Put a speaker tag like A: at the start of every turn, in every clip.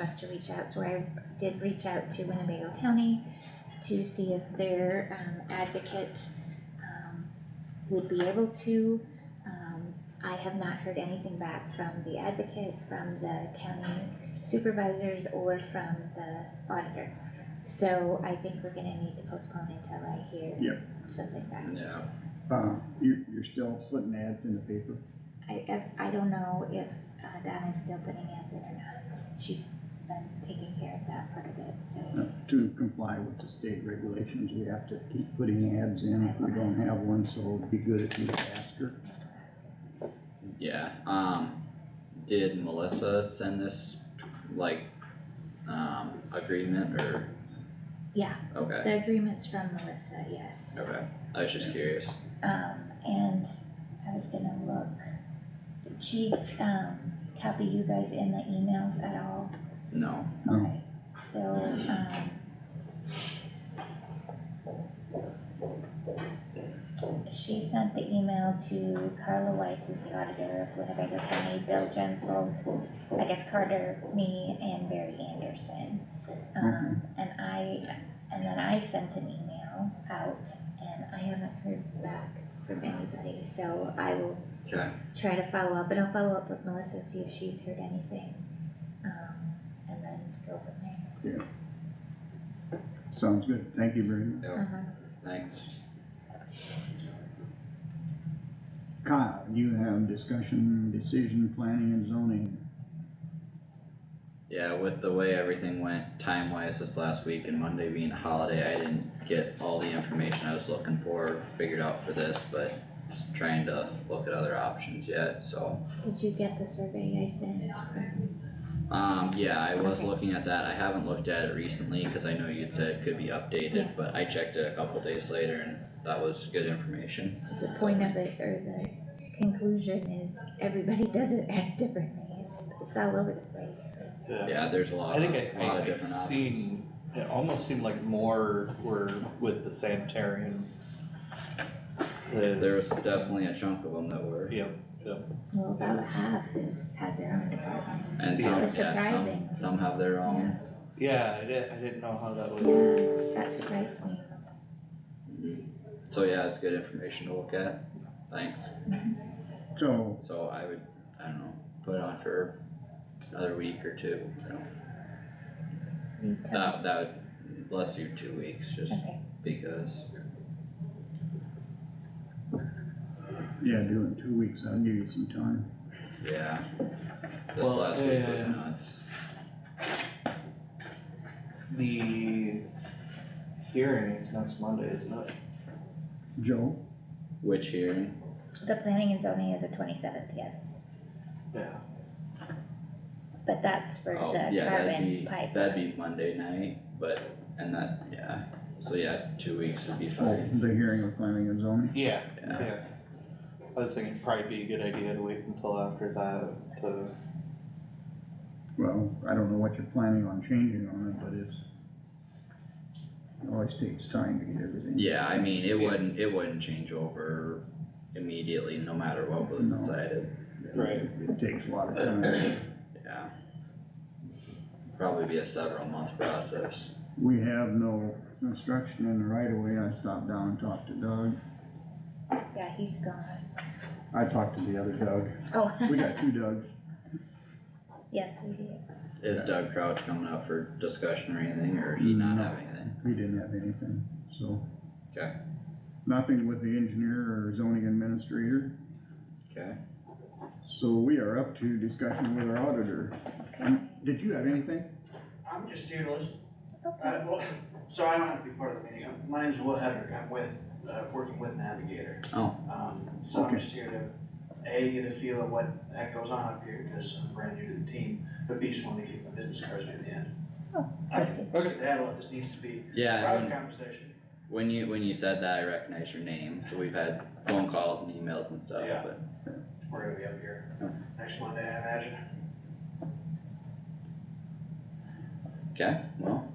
A: us to reach out, so I did reach out to Winnebago County to see if their, um, advocate, um, would be able to. Um, I have not heard anything back from the advocate, from the county supervisors, or from the auditor. So I think we're gonna need to postpone until I hear
B: Yep.
A: something back.
C: Yeah,
B: Uh, you, you're still putting ads in the paper?
A: I guess, I don't know if uh, Donna's still putting ads in or not, she's been taking care of that part of it, so.
B: uh, To comply with the state regulations, we have to keep putting ads in if we don't have one, so it'd be good if you ask her.
A: I will ask her.
C: yeah, um, did Melissa send this, like, um, agreement or,
A: Yeah,
C: okay,
A: the agreement's from Melissa, yes.
C: okay, I was just curious.
A: Um, and I was gonna look, did she, um, copy you guys in the emails at all?
C: No,
B: No.
A: Okay, so, um. She sent the email to Carla Weiss, who's the auditor of Winnebago County, Bill Jensvold, I guess Carter, me, and Barry Anderson. Um, and I, and then I sent an email out, and I haven't heard back from anybody, so I will
C: okay,
A: try to follow up, and I'll follow up with Melissa, see if she's heard anything. Um, and then go from there.
B: Sounds good, thank you very
A: Mm.
B: much.
C: no,
A: Uh-huh.
C: thanks.
B: Kyle, you have discussion, decision, planning and zoning.
C: Yeah, with the way everything went time wise this last week and Monday being a holiday, I didn't get all the information I was looking for, figured out for this, but just trying to look at other options yet, so.
A: Did you get the survey I sent? from-
C: Um, yeah, I was
A: Okay.
C: looking at that, I haven't looked at it recently, cause I know you'd said it could be updated, but I checked it a couple days later and that was good information.
A: The point of it, or the conclusion is, everybody doesn't act differently, it's, it's all over the place, so.
C: Yeah, there's a lot
D: I
C: of,
D: think I,
C: lot of
D: I, I
C: different options.
D: seen, it almost seemed like more were with the sanitarian. The,
C: There was definitely a chunk of them that were,
D: yeah,
A: Well, about half is, has their own department.
C: and
D: It's
C: some,
A: just
C: yeah, some,
A: surprising.
C: some have their own.
D: yeah, I didn't, I didn't know how that was,
A: Yeah, that surprised me.
C: Mm-hmm. So yeah, it's good information to look at, thanks.
B: So,
C: So I would, I don't know, put it on for another week or two, you know,
A: You tell
C: that, that would, let's do two weeks, just
A: me. Okay,
C: because.
B: yeah, do it in two weeks, I'll give you some time.
C: Yeah, this
D: Well,
C: last week was
D: uh,
C: nuts,
D: the hearing is next Monday, isn't it?
B: Joe,
C: which hearing,
A: the planning and zoning is the twenty-seventh, yes,
D: Yeah.
A: but that's for
C: oh,
A: the
C: yeah, that'd
A: carbon
C: be,
A: pipe.
C: that'd be Monday night, but, and that, yeah, so yeah, two weeks would be
B: oh,
C: fine,
B: the hearing of planning and zoning,
D: Yeah,
C: yeah.
D: yeah. I was thinking it'd probably be a good idea to wait until after that to,
B: well, I don't know what you're planning on changing on it, but it's. It always takes time to get everything.
C: Yeah, I mean, it
D: Yeah.
C: wouldn't, it wouldn't change over immediately, no matter what was
B: No.
C: decided,
D: Right.
B: It takes a lot of time.
C: yeah. Probably be a several month process.
B: We have no construction in the right of way, I stopped down and talked to Doug,
A: Yeah, he's gone.
B: I talked to the other Doug,
A: Oh.
B: we got two Dougs.
A: Yes, we did.
C: Is Doug Crouch coming up for discussion or anything, or he not have anything?
B: He didn't have anything, so.
C: Okay.
B: Nothing with the engineer or zoning administrator,
C: Okay,
B: so we are up to discussion with our auditor. Um, Did you have anything?
E: I'm just here to listen.
A: Okay.
E: Uh, well, so I don't have to be part of the meeting. Um, My name's Will Hedrick. I'm with, uh, working with Navigator.
C: Oh.
E: Um, so
B: Okay.
E: I'm just here to, A, get a feel of what the heck goes on up here, cause I'm brand new to the team, but B, just wanted to keep my business cards near the end.
A: Oh,
E: I can
D: okay.
E: skedaddle if this needs to be
C: yeah,
E: private
C: when,
E: conversation.
C: when you, when you said that, I recognized your name, so we've had phone calls and emails and stuff,
E: Yeah.
C: but,
E: We're gonna be up
C: Oh.
E: here next Monday, I imagine.
C: okay, well,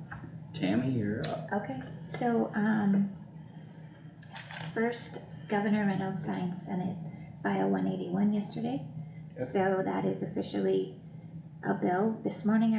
C: Tammy, you're up.
A: Okay, so, um, first, Governor Reynolds signed Senate File one eighty-one yesterday. So that is officially a bill. This morning